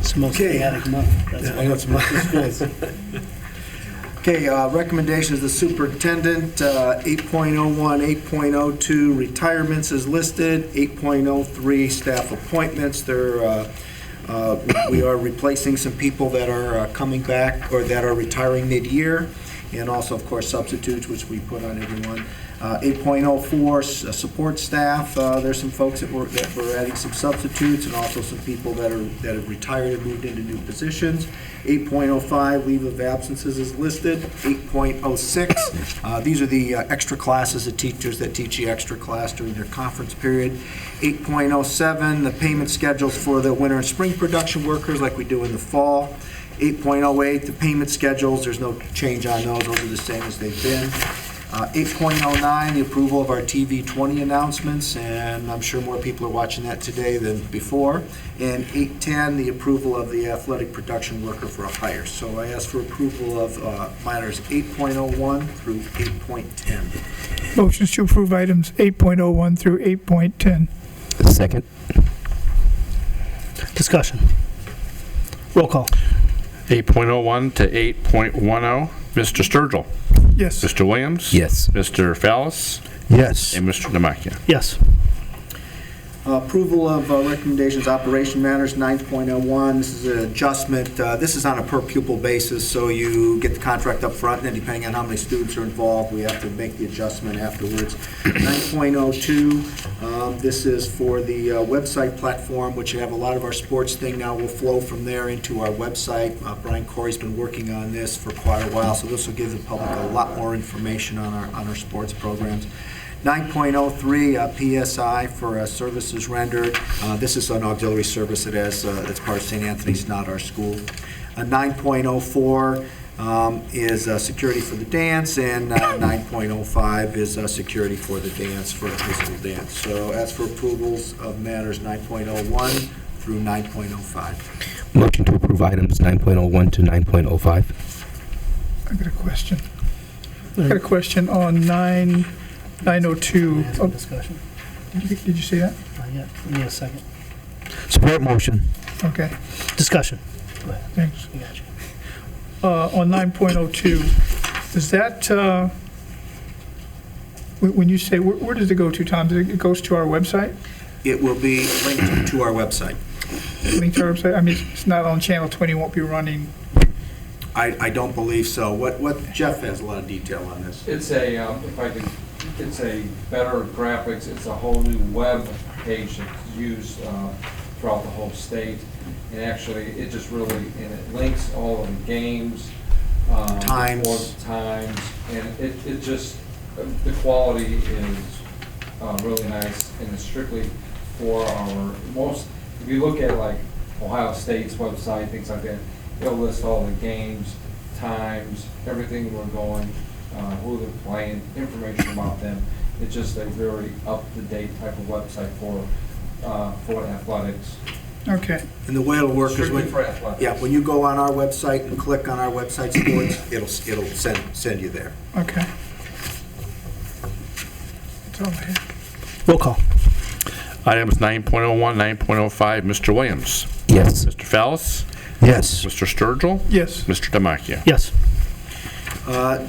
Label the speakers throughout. Speaker 1: It's the most
Speaker 2: Okay.
Speaker 1: chaotic month. That's
Speaker 2: Yeah,
Speaker 1: why
Speaker 2: that's
Speaker 1: it's month of schools.
Speaker 2: Okay, uh, recommendations of the superintendent, uh, 8.01, 8.02 retirements is listed, 8.03 staff appointments, there, uh, uh, we are replacing some people that are uh, coming back or that are retiring mid-year, and also, of course, substitutes, which we put on everyone. Uh, 8.04, s- uh, support staff, uh, there's some folks that we're, that we're adding some substitutes, and also some people that are, that have retired and moved into new positions. 8.05, leave of absences is listed. 8.06, uh, these are the uh, extra classes of teachers that teach the extra class during their conference period. 8.07, the payment schedules for the winter and spring production workers like we do in the fall. 8.08, the payment schedules, there's no change on those, those are the same as they've been. Uh, 8.09, the approval of our TV 20 announcements, and I'm sure more people are watching that today than before. And 8.10, the approval of the athletic production worker for a hire. So I ask for approval of uh, minors 8.01 through 8.10.
Speaker 3: Motions to approve items 8.01 through 8.10.
Speaker 4: Second.
Speaker 1: Discussion. Roll call.
Speaker 5: 8.01 to 8.10. Mr. oh. Sturgill.
Speaker 3: Yes.
Speaker 5: Mr. Williams.
Speaker 4: Yes.
Speaker 5: Mr. Fallis.
Speaker 4: Yes.
Speaker 5: And Mr. Demakia.
Speaker 1: Yes.
Speaker 2: Approval of uh, recommendations, operation matters 9.01, this is an adjustment, uh, this is on a per pupil basis, so you get the contract up front, and then depending on how many students are involved, we have to make the adjustment afterwards. 9.02, um, this is for the uh, website platform, which you have a lot of our sports thing now will flow from there into our website. Uh, Brian Corey's been working on this for quite a while, so this will give the public a lot more information on our, on our sports programs. 9.03 uh, PSI for uh, services rendered. Uh, This is an auxiliary service that has, uh, that's part of St. Anthony's, not our school. Uh, 9.04 um, is uh, security for the dance, and uh, 9.05 is uh, security for the dance, for a physical dance. So as for approvals of matters 9.01 through 9.05.
Speaker 4: Motion to approve items 9.01 to 9.05.
Speaker 3: I got a question. I got a question on 9, 902.
Speaker 1: Ask for
Speaker 3: Oh,
Speaker 1: Discussion.
Speaker 3: Did you- did you see that?
Speaker 1: Not yet. Give me a second.
Speaker 4: Support motion.
Speaker 3: Okay,
Speaker 1: Discussion.
Speaker 3: thanks.
Speaker 1: We got you.
Speaker 3: Uh, On 9.02, does that, uh, when when you say, where- where does it go to, Tom? Does It it goes to our website?
Speaker 2: It will be linked to our website.
Speaker 3: Link to our website? I mean, it's- it's not on Channel 20, won't be running.
Speaker 2: I I don't believe so. What What Jeff has a lot of detail on this.
Speaker 6: It's a, um, if I could, it's a better graphics, it's a whole new web page that's used uh, throughout the whole state. And actually, it just really, and it links all of the games. um,
Speaker 2: Times.
Speaker 6: sports Times, and it, it just, uh, the quality is uh, really nice and it's strictly for our most, if you look at like Ohio State's website, things like that, it'll list all the games, times, everything we're going, uh, who they're playing, information about them. It's just a very up-to-date type of website for, uh, for athletics.
Speaker 3: Okay,
Speaker 2: And the way it'll work is
Speaker 6: Strictly
Speaker 2: when,
Speaker 6: for athletics.
Speaker 2: yeah, when you go on our website and click on our website sports, it'll, it'll send, send you there.
Speaker 3: okay. That's all I have.
Speaker 1: Roll call.
Speaker 5: Items 9.01, 9.05. Mr. oh Williams.
Speaker 4: Yes.
Speaker 5: Mr. Fallis.
Speaker 4: Yes.
Speaker 5: Mr. Sturgill.
Speaker 3: Yes.
Speaker 5: Mr. Demakia.
Speaker 1: Yes.
Speaker 2: Uh,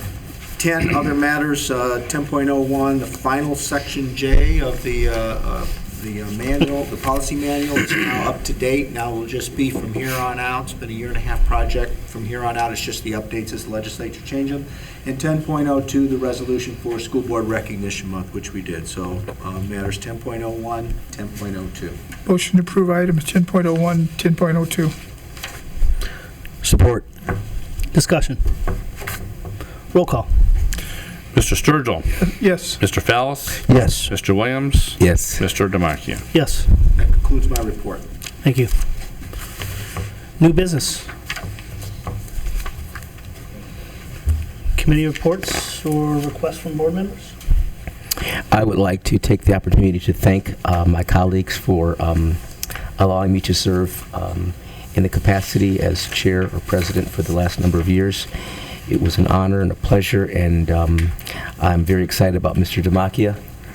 Speaker 2: 10 other matters, uh, 10.01, the final section J of the, uh, uh, the uh, manual, the policy manual is now up to date. Now will just be from here on out, it's been a year and a half project. From here on out, it's just the updates as the legislature changes them. And 10.02, the resolution for School Board Recognition Month, which we did. So uh, matters 10.01, 10.02.
Speaker 3: Motion to approve items 10.01, 10.02.
Speaker 4: Support.
Speaker 1: Discussion. Roll call.
Speaker 5: Mr. Sturgill.
Speaker 3: Yes.
Speaker 5: Mr. Fallis.
Speaker 4: Yes.
Speaker 5: Mr. Williams.
Speaker 4: Yes.
Speaker 5: Mr. Demakia.
Speaker 1: Yes.
Speaker 2: That concludes my report.
Speaker 1: Thank you. New business. Committee reports or requests from board members?
Speaker 4: I would like to take the opportunity to thank uh, my colleagues for um, allowing me to serve um, in the capacity as chair or president for the last number of years. It was an honor and a pleasure, and um, I'm very excited about Mr. Demakia